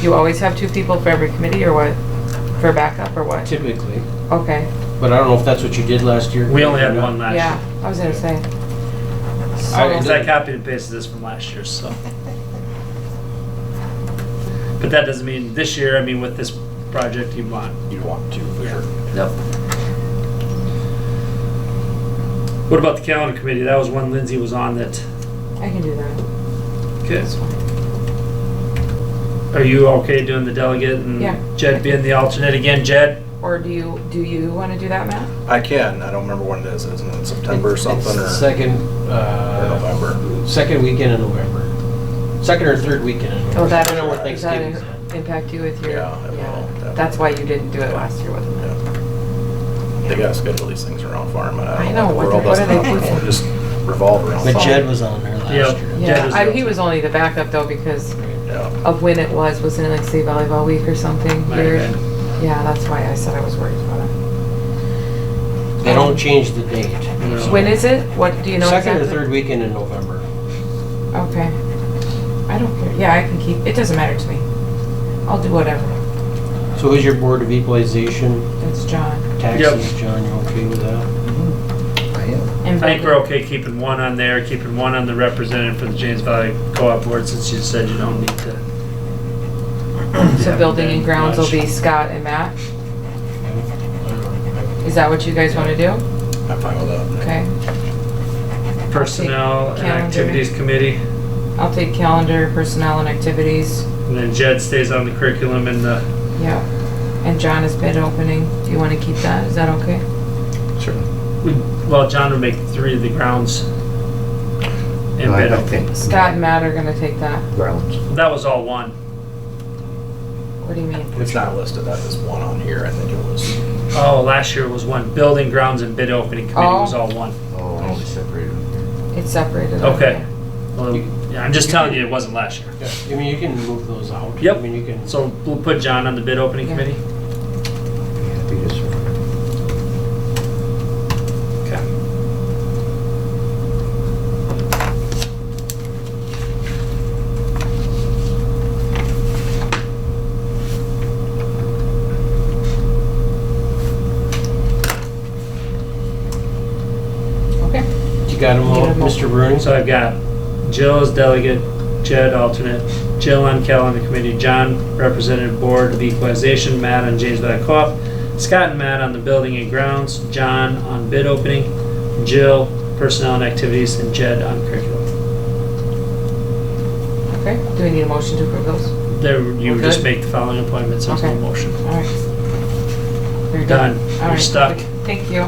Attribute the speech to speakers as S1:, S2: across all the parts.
S1: you always have two people for every committee or what? For backup or what?
S2: typically.
S1: Okay,
S2: But I don't know if that's what you did last year.
S3: We only had one last
S1: yeah,
S3: year.
S1: I was gonna say.
S2: I-
S3: Because
S1: So,
S3: I copied and pasted this from last year, so. But that doesn't mean this year, I mean, with this project, you want.
S4: You'd want to, for
S3: Yeah.
S4: sure.
S3: Yep. What about the calendar committee? That was one Lindsay was on that.
S1: I can do that.
S3: Okay.
S1: That's fine.
S3: Are you okay doing the delegate
S1: Yeah.
S3: and Jed being the alternate again? Jed?
S1: Or do you, do you wanna do that, Matt?
S4: I can, I don't remember when it is, isn't it September or
S2: It's-
S4: something,
S2: it's
S4: or?
S2: Second,
S4: or
S2: uh,
S4: November.
S2: second weekend in November. Second or third weekend in November.
S1: Oh, that,
S2: I don't know where
S1: does that
S2: Thanksgiving's at.
S1: impact you with your?
S4: Yeah, it will, definitely.
S1: That's why you didn't do it last year, wasn't it?
S4: Yeah. They gotta schedule these things around farm, and I
S1: I
S4: don't
S1: know,
S4: know,
S1: what
S4: what the
S1: the-
S4: world
S1: what
S4: doesn't
S1: are they
S4: operate,
S1: thinking?
S4: just revolve around.
S2: But
S4: farm.
S2: Jed was on there last
S3: Yep.
S2: year.
S3: Jed
S1: Yeah,
S3: was the
S1: I, he
S3: alternate.
S1: was only the backup though because
S4: Yeah,
S1: of when it was, wasn't it like state volleyball week or something
S3: Might have
S1: weird?
S3: been.
S1: Yeah, that's why I said I was worried about it. Um,
S2: They don't change the date.
S3: No.
S1: When is it? What, do you know
S2: Second or
S1: exactly?
S2: third weekend in November.
S1: Okay. I don't care. Yeah, I can keep, it doesn't matter to me. I'll do whatever.
S2: So is your Board of Equalization,
S1: That's John.
S2: taxes, John, you okay with that?
S5: I am.
S3: I think we're okay keeping one on there, keeping one on the representative for the James Valley Co-op Board since you said you don't need to.
S1: So
S3: have
S1: building
S3: them
S1: and grounds will
S3: much.
S1: be Scott and Matt? Is that what you guys want to do?
S4: I'm fine with that.
S1: Okay.
S3: Personnel and
S1: Calendar.
S3: Activities Committee,
S1: I'll take calendar, personnel and activities.
S3: and then Jed stays on the curriculum and uh, the,
S1: Yeah. And John is bid opening. Do you want to keep that? Is that okay?
S4: Sure.
S3: we- well, John would make three of the grounds. And
S5: I-
S3: bid
S5: I think
S1: Scott and Matt are going to take that.
S5: Grounds.
S3: That was all one.
S1: What do you mean?
S4: It's not listed, that is one on here, I think it was.
S3: Oh, last year was one. Building, grounds, and bid opening committee was all one.
S5: Oh, I'll be separated.
S1: It's separated.
S3: Okay. Well, yeah, I'm just telling you, it wasn't last year.
S2: Yeah, I mean, you can move those out.
S3: Yep.
S2: I mean, you can.
S3: So we'll put John on the bid opening
S1: Yeah.
S3: committee?
S5: Be happy to serve.
S3: Okay.
S1: Okay.
S2: You got them all,
S1: Yeah.
S2: Mr. Bruning?
S3: So I've got Jill as delegate, Jed alternate, Jill on calendar committee, John representative board of equalization, Matt on James Valley Co-op, Scott and Matt on the building and grounds, John on bid opening, Jill personnel and activities, and Jed on curriculum.
S1: Okay. Do we need a motion to approve those?
S3: There, you
S1: Okay.
S3: just make the following appointments, there's no
S1: Okay.
S3: motion.
S1: All right. You're
S3: Done.
S1: All
S3: You're
S1: right.
S3: stuck.
S1: Thank you.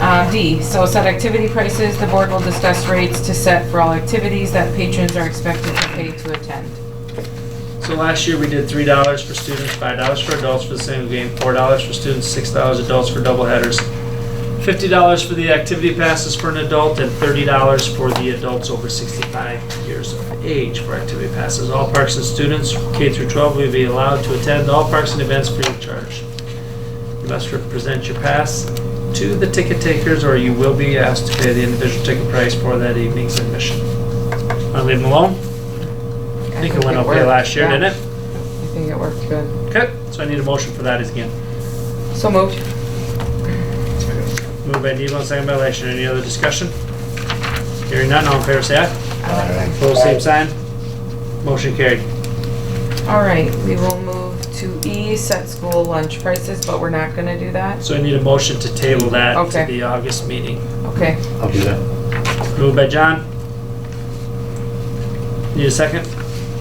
S1: Uh, D, so set activity prices. The board will discuss rates to set for all activities that patrons are expected to pay to attend.
S3: So last year, we did three dollars for students, five dollars for adults for the single game, four dollars for students, six dollars adults for double headers, fifty dollars for the activity passes for an adult, and thirty dollars for the adults over sixty-five years of age for activity passes. All parks and students, K through twelve, will be allowed to attend all parks and events free of charge. You must present your pass to the ticket takers, or you will be asked to pay the individual ticket price for that evening's admission. Want to leave them alone? I think it went okay last year, didn't it?
S1: I think it worked good.
S3: Okay, so I need a motion for that again.
S1: So moved.
S3: Moved by Devo, second by Leishman. Any other discussion? Hearing none, all in favor say aye.
S5: Aye.
S3: Opposed, same sign. Motion carried.
S1: All right, we will move to E, set school lunch prices, but we're not gonna do that.
S3: So I need a motion to table that to
S1: Okay.
S3: the August meeting.
S1: Okay,
S5: I'll do that.
S3: Moved by John. Need a second?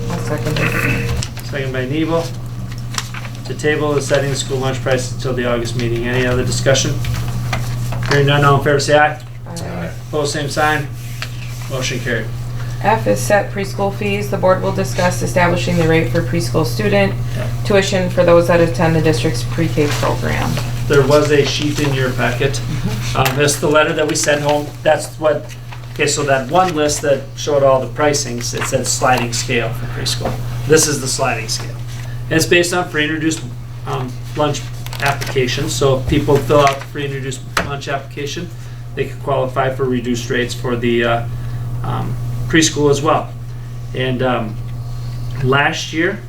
S1: I'll second it.
S3: Second by Nebo. To table the setting of school lunch prices until the August meeting. Any other discussion? Hearing none, all in favor say aye.
S1: Alright.
S3: Opposed, same sign. Motion carried.
S1: F is set preschool fees. The board will discuss establishing the rate for preschool student tuition for those that attend the district's pre-K program.
S3: there was a sheet in your packet. Um, This, the letter that we sent home, that's what, okay, so that one list that showed all the pricings, it said sliding scale for preschool. This is the sliding scale. And it's based on free and reduced um, lunch applications, so if people fill out the free and reduced lunch application, they could qualify for reduced rates for the uh, um, preschool as well. And um, last year,